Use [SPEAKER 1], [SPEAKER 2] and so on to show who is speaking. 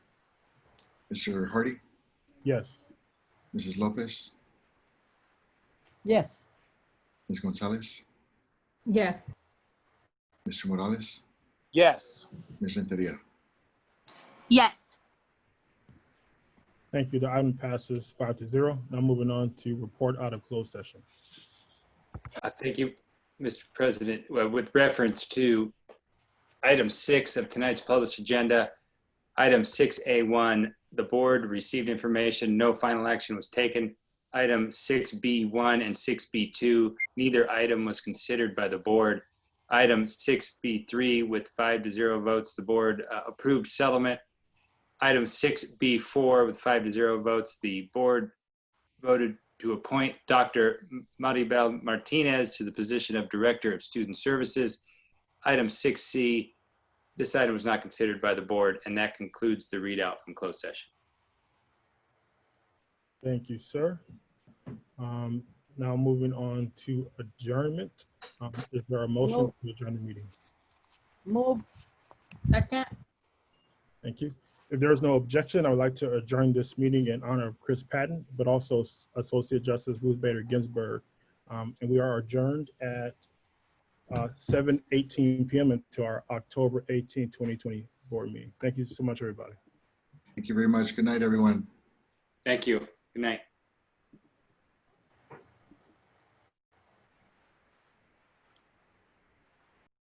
[SPEAKER 1] Mr. Hardy,
[SPEAKER 2] Yes.
[SPEAKER 1] Mrs. Lopez,
[SPEAKER 3] Yes.
[SPEAKER 1] Ms. Gonzalez,
[SPEAKER 4] Yes.
[SPEAKER 1] Mr. Morales,
[SPEAKER 5] Yes.
[SPEAKER 1] Ms. Renteria.
[SPEAKER 6] Yes.
[SPEAKER 2] Thank you. The item passes five to zero. Now moving on to report out of closed session.
[SPEAKER 7] Uh, Thank you, Mr. President. Well, With reference to item six of tonight's published agenda, item 6A1, the board received information, no final action was taken. Item 6B1 and 6B2, neither item was considered by the board. Item 6B3, with five to zero votes, the board uh, approved settlement. Item 6B4, with five to zero votes, the board voted to appoint Dr. Maribel Martinez to the position of Director of Student Services. Item 6C, this item was not considered by the board, and that concludes the readout from closed session.
[SPEAKER 2] Thank you, sir. Um, Now moving on to adjournment. Um, Is there a motion
[SPEAKER 3] Move.
[SPEAKER 2] to adjourn the meeting?
[SPEAKER 3] Move.
[SPEAKER 4] Second.
[SPEAKER 2] Thank you. If there is no objection, I would like to adjourn this meeting in honor of Chris Patton, but also Associate Justice Ruth Bader Ginsburg. Um, And we are adjourned at uh, 7:18 PM into our October 18, 2020 board meeting. Thank you so much, everybody.
[SPEAKER 1] Thank you very much. Good night, everyone.
[SPEAKER 7] Thank you. Good night.